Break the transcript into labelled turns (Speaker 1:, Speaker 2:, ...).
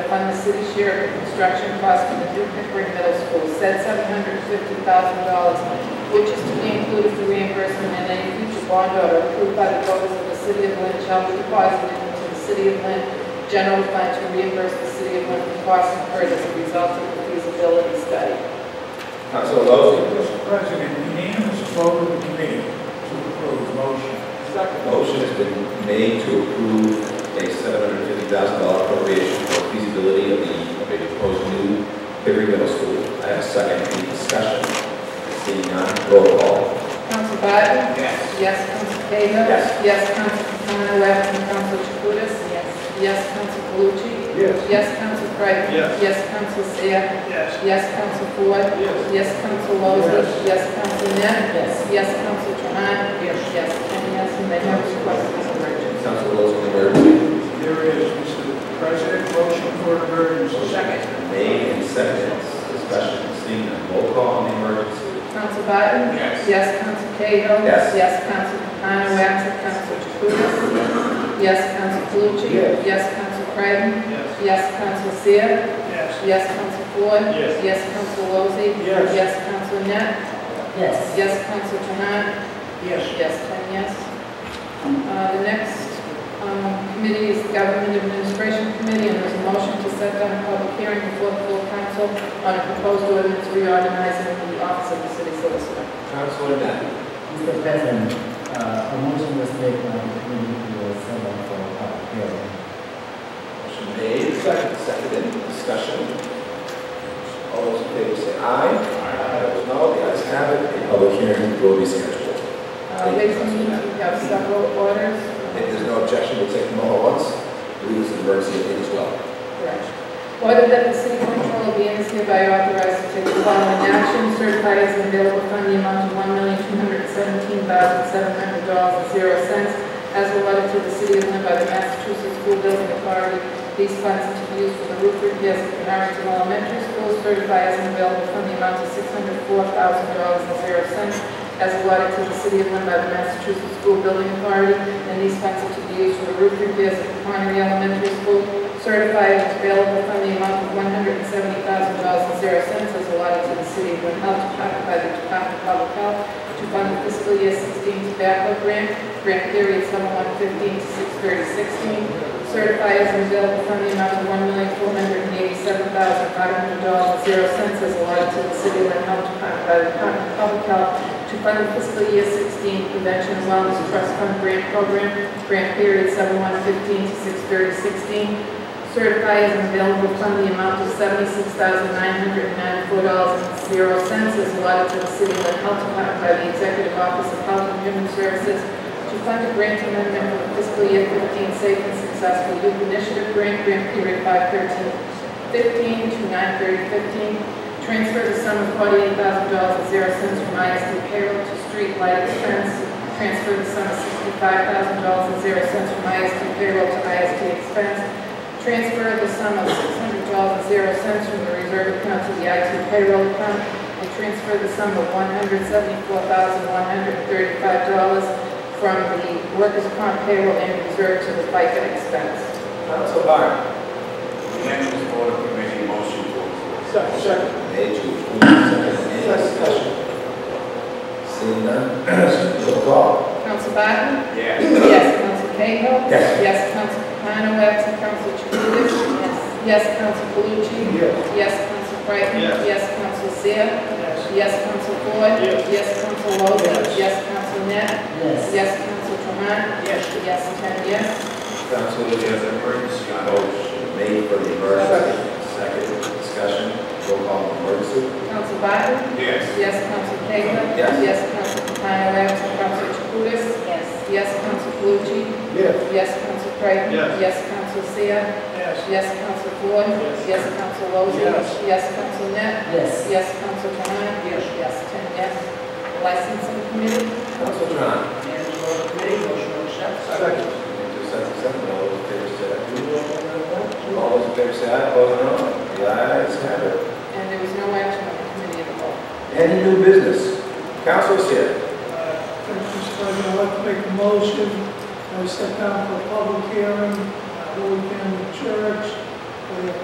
Speaker 1: fund the city share of the construction costs for the new Pickering Middle School, said seven hundred fifty thousand dollars, which is to be included for reimbursement in any future bond order approved by the voters of the city of Lynn shall be deposited into the city of Lynn general fund to reimburse the city of Lynn for costs incurred as a result of the feasibility study.
Speaker 2: Council Lozey.
Speaker 3: Mr. President, unanimous vote of the committee to approve the motion.
Speaker 2: Motion has been made to approve a seven hundred fifty thousand dollar appropriation for feasibility of the, of a proposed new Pickering Middle School. I have a second, any discussion? Seeing none, roll call.
Speaker 1: Council Biden?
Speaker 3: Yes.
Speaker 1: Yes, Council Cahill?
Speaker 2: Yes.
Speaker 1: Yes, Council Capano, absent Council Jacutis? Yes. Yes, Council Calucci?
Speaker 2: Yes.
Speaker 1: Yes, Council Creighton?
Speaker 3: Yes.
Speaker 1: Yes, Council Seah?
Speaker 3: Yes.
Speaker 1: Yes, Council Ford?
Speaker 3: Yes.
Speaker 1: Yes, Council Lozey? Yes, Council Net? Yes. Yes, Council Trahan? Yes. Yes, ten yes, and they have requested this emergency.
Speaker 2: Council Lozey on the emergency.
Speaker 3: There is, Mr. President, motion for an emergency. Second.
Speaker 2: Made and seconded, discussion, seeing none, roll call on the emergency.
Speaker 1: Council Biden?
Speaker 3: Yes.
Speaker 1: Yes, Council Cahill?
Speaker 2: Yes.
Speaker 1: Yes, Council Capano, absent Council Jacutis? Yes, Council Calucci?
Speaker 2: Yes.
Speaker 1: Yes, Council Creighton?
Speaker 3: Yes.
Speaker 1: Yes, Council Seah?
Speaker 3: Yes.
Speaker 1: Yes, Counsel Floyd?
Speaker 3: Yes.
Speaker 1: Yes, Counsel Lozey?
Speaker 3: Yes.
Speaker 1: Yes, Counsel Net?
Speaker 4: Yes.
Speaker 1: Yes, Counsel Trahan?
Speaker 3: Yes.
Speaker 1: Yes, ten yes. Uh, The next um, committee is the Government Administration Committee, and there's a motion to set down a public hearing before the full council on a proposed ordinance reorganizing the office of the city solicitor.
Speaker 2: Councilor Net.
Speaker 4: Mr. President, uh, a motion was made by the committee to send up for a public hearing.
Speaker 2: Motion made, seconded, seconded, discussion. All those in favor say aye. Aye. Those no, the ayes have it, a public hearing will be scheduled.
Speaker 1: Uh, Ladies and gentlemen, we have several orders.
Speaker 2: If there's no objection, we'll take them all at once. We use the emergency aid as well.
Speaker 1: Correct. Order that the city controller be and is hereby authorized to take the following action, certify as an available fund the amount of one million two hundred seventeen thousand seven hundred dollars and zero cents as allotted to the city of Lynn by the Massachusetts School Building Authority. These funds to be used for the roof repairs at Carrington Elementary School, certify as an available fund the amount of six hundred four thousand dollars and zero cents as allotted to the city of Lynn by the Massachusetts School Building Authority, and these funds are to be used for the roof repairs at Connery Elementary School, certified as available from the amount of one hundred and seventy thousand dollars and zero cents as allotted to the city of Lynn Health Department by the Department of Public Health to fund the fiscal year sixteen tobacco grant, grant period sum one fifteen to six thirty sixteen, certify as available from the amount of one million four hundred and eighty-seven thousand five hundred dollars and zero cents as allotted to the city of Lynn Health Department by the Department of Public Health to fund the fiscal year 16 Convention and Wellness Trust Fund Grant Program, grant period 7/1/15 to 6/30/16. Certify as an available fund the amount of $76,994.00 as allotted to the City of Lynn Health Department by the Executive Office of Health and Human Services to fund a grant amendment for the fiscal year 15 Safe and Successful Youth Initiative Grant, grant period 5/13/15 to 9/30/15. Transfer the sum of forty-eight thousand dollars and zero cents from ISD payroll to street light expense. Transfer the sum of sixty-five thousand dollars and zero cents from ISD payroll to ISD expense. Transfer the sum of six hundred dollars and zero cents from the reserve account to the IT payroll account. And transfer the sum of one hundred seventy-four thousand one hundred thirty-five dollars from the workers' comp payroll and reserve to the FICA expense.
Speaker 2: Council Barton.
Speaker 5: Unanimous vote of committee, motion to approve.
Speaker 2: Made to approve, seconded, any discussion? Seeing none, roll call.
Speaker 1: Council Barton?
Speaker 5: Yes.
Speaker 1: Yes, Counsel Cahill.
Speaker 2: Yes.
Speaker 1: Yes, Counsel Capano, absent Counsel Jacutis. Yes. Yes, Counsel Calucci.
Speaker 2: Yes.
Speaker 1: Yes, Counsel Creighton.
Speaker 5: Yes.
Speaker 1: Yes, Counsel Seah. Yes, Counsel Floyd.
Speaker 5: Yes.
Speaker 1: Yes, Counsel Lozey.
Speaker 3: Yes.
Speaker 1: Yes, Counsel Net.
Speaker 4: Yes.
Speaker 1: Yes, Counsel Trahan.
Speaker 3: Yes.
Speaker 1: Yes, ten yes.
Speaker 2: Council Lozey has an emergency. Motion made for the emergency. Second, discussion, roll call on the emergency.
Speaker 1: Counsel Barton.
Speaker 5: Yes.
Speaker 1: Yes, Counsel Cahill.
Speaker 2: Yes.
Speaker 1: Yes, Counsel Capano, absent Counsel Jacutis. Yes. Yes, Counsel Calucci.
Speaker 2: Yes.
Speaker 1: Yes, Counsel Creighton.
Speaker 5: Yes.
Speaker 1: Yes, Counsel Seah.
Speaker 3: Yes.
Speaker 1: Yes, Counsel Floyd.
Speaker 5: Yes.
Speaker 1: Yes, Counsel Lozey.
Speaker 3: Yes.
Speaker 1: Yes, Counsel Net.
Speaker 4: Yes.
Speaker 1: Yes, Counsel Trahan. Yes. Yes, ten yes. Licensing Committee.
Speaker 2: Council Trahan.
Speaker 3: Unanimous vote of committee, motion to accept.
Speaker 2: Made to accept, accept, all those in favor say aye. All those in favor say aye, opposed no. The ayes have it.
Speaker 1: And there was no action on the committee at all.
Speaker 2: Any new business? Council Seah.
Speaker 6: Thank you, Mr. President. I'd like to make a motion, I set down for a public hearing, uh, Holy Family Church, for the